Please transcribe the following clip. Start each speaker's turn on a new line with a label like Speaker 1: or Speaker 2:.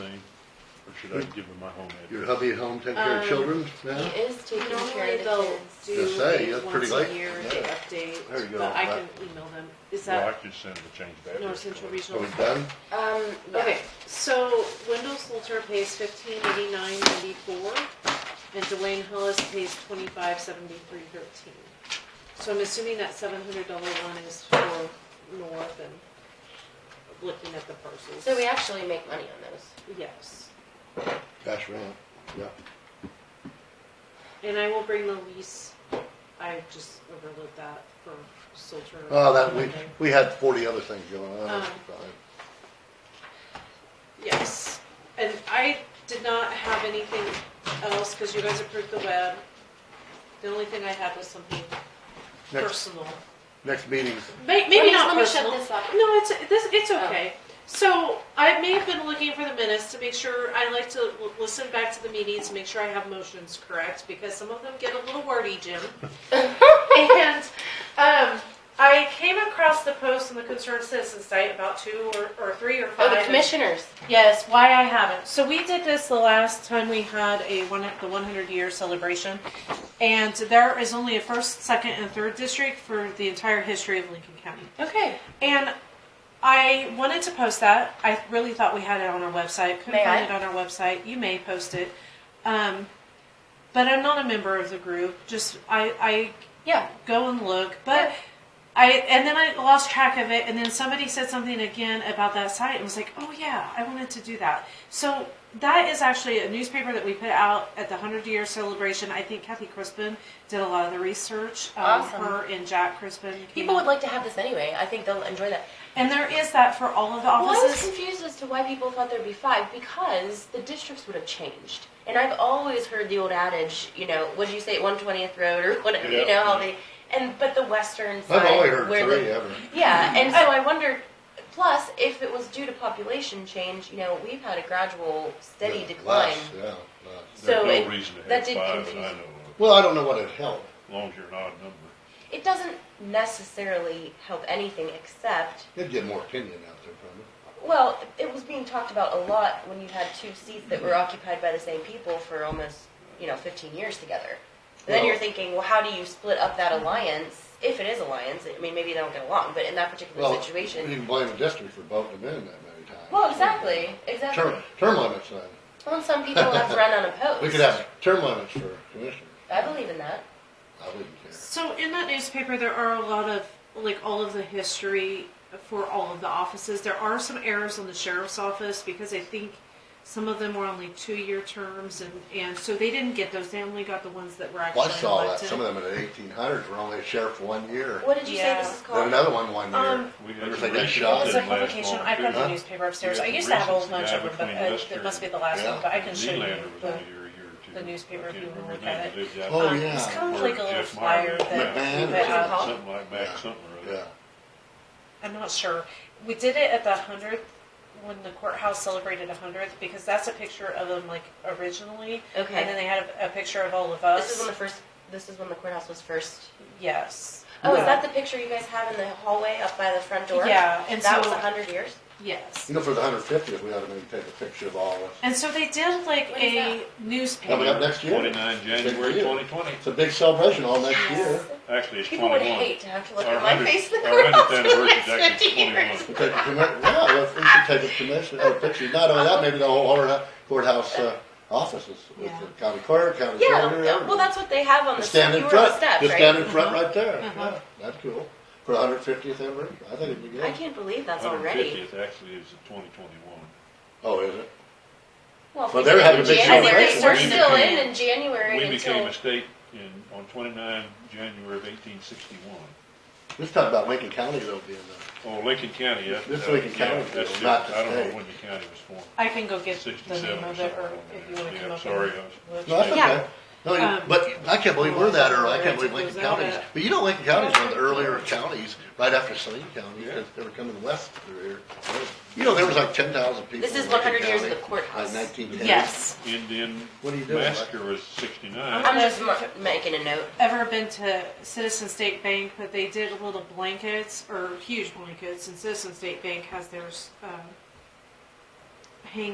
Speaker 1: Should I give them my home
Speaker 2: Your
Speaker 1: address?
Speaker 2: hubby at home take care of
Speaker 3: Um,
Speaker 2: children
Speaker 3: He
Speaker 2: now?
Speaker 3: is taking care
Speaker 4: Normally
Speaker 3: of the
Speaker 4: they'll
Speaker 3: kids.
Speaker 2: Just
Speaker 4: do
Speaker 2: say,
Speaker 4: it
Speaker 2: that's pretty
Speaker 4: once a
Speaker 2: late.
Speaker 4: year, they update,
Speaker 2: There you go.
Speaker 4: but I
Speaker 2: That-
Speaker 4: can email them. Is
Speaker 1: Well, I
Speaker 4: that,
Speaker 1: could send the change back.
Speaker 4: no, Central
Speaker 2: Are
Speaker 4: Regional?
Speaker 2: we Oh, done?
Speaker 3: Um,
Speaker 4: Okay,
Speaker 3: okay.
Speaker 4: so Wendell Salter pays fifteen eighty-nine ninety-four, and Dwayne Hollis pays twenty-five seventy-three thirteen. So I'm assuming that seven hundred dollar one is for North and looking at the parcels.
Speaker 3: So we actually make money on those.
Speaker 4: Yes,
Speaker 2: Cash round. Yeah.
Speaker 4: and I will bring the lease, I just overlooked that for Salter.
Speaker 2: Oh, that, we,
Speaker 4: Monday.
Speaker 2: we had forty other things going on.
Speaker 4: Um, Yes, and I did not have anything else, cause you guys approved the web. The only thing I had was something
Speaker 2: Next,
Speaker 4: personal.
Speaker 2: next meeting,
Speaker 4: May- Maybe
Speaker 3: me-
Speaker 4: not
Speaker 3: let me shut
Speaker 4: personal.
Speaker 3: this up.
Speaker 4: No, it's, this, it's
Speaker 3: Oh.
Speaker 4: okay. So I may have been looking for the minutes to make sure, I like to l- listen back to the meetings, make sure I have motions correct, because some of them get a little wordy, Jim. And, um, I came across the post on the Concerned Citizen site about two or, or three or
Speaker 3: Oh,
Speaker 4: five.
Speaker 3: the commissioners.
Speaker 4: Yes, why I haven't. So we did this the last time we had a one, the one hundred year celebration. And there is only a first, second, and third district for the entire history of Lincoln County.
Speaker 3: Okay.
Speaker 4: And I wanted to post that. I really thought we had it on our website. Couldn't
Speaker 3: May
Speaker 4: find
Speaker 3: I?
Speaker 4: it on our website. You may post it. Um, but I'm not a member of the group. Just I, I
Speaker 3: Yeah.
Speaker 4: go and look. But I and then I lost track of it. And then somebody said something again about that site. and was like, oh yeah, I wanted to do that. So that is actually a newspaper that we put out at the hundred year celebration. I think Kathy Crispin did a lot of the research. Um,
Speaker 3: Awesome.
Speaker 4: Her and Jack Crispin. came
Speaker 3: People would
Speaker 4: up.
Speaker 3: like to have this anyway. I think they'll enjoy that.
Speaker 4: And there is that for all of the
Speaker 3: Well, I was
Speaker 4: offices.
Speaker 3: confused as to why people thought there'd be five because the districts would have changed. And I've always heard the old adage, you know, what would you say, One Twentieth Road or whatever, you
Speaker 2: Yeah.
Speaker 3: know how they. And but the western side.
Speaker 2: I've only heard
Speaker 3: where
Speaker 2: three
Speaker 3: the,
Speaker 2: ever.
Speaker 3: Yeah, and so I wondered. Plus, if it was due to population change, you know, we've had a gradual, steady
Speaker 2: Yeah,
Speaker 3: decline.
Speaker 2: less, Yeah, less.
Speaker 3: so
Speaker 1: There's
Speaker 3: it-
Speaker 1: no reason to
Speaker 3: that
Speaker 1: have
Speaker 3: did
Speaker 1: five that
Speaker 3: confuse-
Speaker 1: I know of,
Speaker 2: Well, I don't know what it helped.
Speaker 1: as long as you're an odd number.
Speaker 3: It doesn't necessarily help anything except,
Speaker 2: It'd get more opinion out there probably.
Speaker 3: well, it was being talked about a lot when you had two seats that
Speaker 2: Mm-hmm.
Speaker 3: were occupied by the same people for almost, you know, 15 years together. And then
Speaker 2: Well-
Speaker 3: you're thinking, well, how do you split up that alliance if it is alliance? I mean, maybe they don't get along, but in that particular
Speaker 2: Well,
Speaker 3: situation,
Speaker 2: You can blame the district for voting them in that many times.
Speaker 3: well, exactly, exactly.
Speaker 2: Term, term limits then.
Speaker 3: Well, and some people have run unopposed.
Speaker 2: We could have term limits for commissioners.
Speaker 3: I believe in that.
Speaker 2: I wouldn't care.
Speaker 4: So in that newspaper, there are a lot of like all of the history for all of the offices. There are some errors on the sheriff's office because I think some of them were only two-year terms, and and so they didn't get those. They only got the ones that were actually
Speaker 2: Well, I saw that,
Speaker 4: elected.
Speaker 2: some of them in the eighteen hundreds were only sheriff for one year.
Speaker 3: What did you say
Speaker 4: Yeah.
Speaker 3: this is
Speaker 2: Then
Speaker 3: called?
Speaker 2: another one one year.
Speaker 4: Um,
Speaker 1: We
Speaker 2: Remember
Speaker 1: had
Speaker 2: they
Speaker 1: the
Speaker 2: got
Speaker 1: reasons
Speaker 2: shot?
Speaker 1: that
Speaker 4: It's a
Speaker 1: didn't last
Speaker 4: publication.
Speaker 1: long,
Speaker 4: I've got
Speaker 1: too.
Speaker 4: the
Speaker 2: Huh?
Speaker 4: newspaper upstairs.
Speaker 1: You
Speaker 4: I
Speaker 1: got the
Speaker 4: used to have a whole
Speaker 1: reasons
Speaker 4: bunch
Speaker 1: to
Speaker 4: of them,
Speaker 1: die
Speaker 4: but
Speaker 1: between
Speaker 4: uh,
Speaker 1: Lester
Speaker 4: it must be the last one.
Speaker 2: Yeah.
Speaker 4: But I can show you.
Speaker 1: Nylander was
Speaker 4: the- um,
Speaker 1: only here a year or two.
Speaker 4: the newspaper
Speaker 1: I
Speaker 4: if
Speaker 1: can't
Speaker 4: you wanna
Speaker 1: remember
Speaker 4: look
Speaker 1: the name
Speaker 4: at
Speaker 1: of it.
Speaker 2: Oh,
Speaker 4: um,
Speaker 2: yeah.
Speaker 4: It's kind of like a little
Speaker 1: Jeff Meyer.
Speaker 4: flyer that.
Speaker 2: McMahon or
Speaker 4: that,
Speaker 3: something.
Speaker 4: um,
Speaker 1: Something like
Speaker 2: Yeah.
Speaker 1: that, something or
Speaker 2: Yeah,
Speaker 1: other.
Speaker 4: I'm not sure. We did it at the hundredth when the courthouse celebrated a hundredth because that's a picture of them like originally, and then
Speaker 3: Okay.
Speaker 4: they had a, a picture of all of
Speaker 3: This is
Speaker 4: us.
Speaker 3: when the first. This is when the courthouse was first
Speaker 4: yes.
Speaker 3: Oh, is
Speaker 4: Yeah.
Speaker 3: that the picture you guys have in the hallway up by the front door?
Speaker 4: Yeah, and
Speaker 3: And that
Speaker 4: so
Speaker 3: was a hundred years?
Speaker 4: yes,
Speaker 2: you know, for the hundred fiftieth, we ought to maybe take a picture of all of us.
Speaker 4: and so they did like
Speaker 3: What is
Speaker 4: a
Speaker 2: Coming up
Speaker 4: newspaper.
Speaker 2: next year,
Speaker 1: Twenty-nine
Speaker 2: Big
Speaker 1: January
Speaker 2: year.
Speaker 1: twenty twenty.
Speaker 2: it's a big celebration all next
Speaker 4: Yes.
Speaker 2: year.
Speaker 1: Actually, it's
Speaker 3: People would
Speaker 1: twenty-one.
Speaker 3: hate to have to look
Speaker 1: Our
Speaker 3: at my
Speaker 1: 100
Speaker 3: face in the
Speaker 1: our 100th
Speaker 3: courthouse for the
Speaker 1: anniversary
Speaker 3: last
Speaker 1: is actually
Speaker 3: fifty
Speaker 1: 21.
Speaker 3: years.
Speaker 2: We take a commi- yeah, if we should take a commission, or picture, not only that, maybe the whole courthouse- courthouse, uh, offices with the county clerk, county
Speaker 3: Yeah,
Speaker 2: treasurer.
Speaker 3: well,
Speaker 2: everybody.
Speaker 3: that's what they have on the,
Speaker 2: Just
Speaker 3: step-
Speaker 2: stand
Speaker 3: you
Speaker 2: in
Speaker 3: were on the
Speaker 2: front,
Speaker 3: steps,
Speaker 2: just stand
Speaker 3: right?
Speaker 2: in front right there,
Speaker 4: Uh-huh.
Speaker 2: yeah, that's cool, for the hundred fiftieth anniversary, I think it'd be
Speaker 3: I
Speaker 2: good.
Speaker 3: can't believe that's
Speaker 1: Hundred
Speaker 3: already.
Speaker 1: fiftieth actually is twenty twenty-one.
Speaker 2: Oh, is it?
Speaker 3: Well, if
Speaker 2: Well,
Speaker 3: we
Speaker 2: they're
Speaker 3: did
Speaker 2: having
Speaker 3: in
Speaker 2: a big
Speaker 3: January,
Speaker 2: celebration.
Speaker 3: We're
Speaker 1: We
Speaker 3: still
Speaker 1: became-
Speaker 3: in in January
Speaker 1: We became
Speaker 3: until,
Speaker 1: a state in, on twenty-nine January of eighteen sixty-one.
Speaker 2: Let's talk about Lincoln County though being the,
Speaker 1: Oh, Lincoln County, that's.
Speaker 2: This
Speaker 1: that's-
Speaker 2: Lincoln
Speaker 1: yeah,
Speaker 2: County,
Speaker 1: that's
Speaker 2: though, not
Speaker 1: different.
Speaker 2: the
Speaker 1: I don't
Speaker 2: state.
Speaker 1: know when the county was formed.
Speaker 4: I can go get the
Speaker 1: 67
Speaker 4: name
Speaker 1: or
Speaker 4: of it, or
Speaker 1: something.
Speaker 4: if you want to
Speaker 1: Yeah,
Speaker 4: come up.
Speaker 1: sorry,
Speaker 4: and-
Speaker 1: I was-
Speaker 4: with-
Speaker 2: no, that's
Speaker 3: Yeah.
Speaker 2: okay. No, you-
Speaker 4: Um,
Speaker 2: but I can't believe we're that early, I can't believe
Speaker 4: Where it
Speaker 2: Lincoln
Speaker 4: goes out
Speaker 2: County's,
Speaker 4: at.
Speaker 2: but you know Lincoln County's one of the earlier counties, right after Saline County, because they were coming west through here. You know, there was like ten thousand people
Speaker 3: this
Speaker 2: in
Speaker 3: is
Speaker 2: Lincoln
Speaker 3: one
Speaker 2: County.
Speaker 3: hundred years of the
Speaker 2: Like
Speaker 3: courthouse.
Speaker 2: nineteen ten.
Speaker 4: Yes.
Speaker 1: Indian
Speaker 2: What are you doing, Mike?
Speaker 1: massacre was sixty-nine.
Speaker 3: I'm just mar- making a note.
Speaker 4: ever been to Citizen State Bank, but they did little blankets or huge blankets, and Citizen State Bank has theirs um,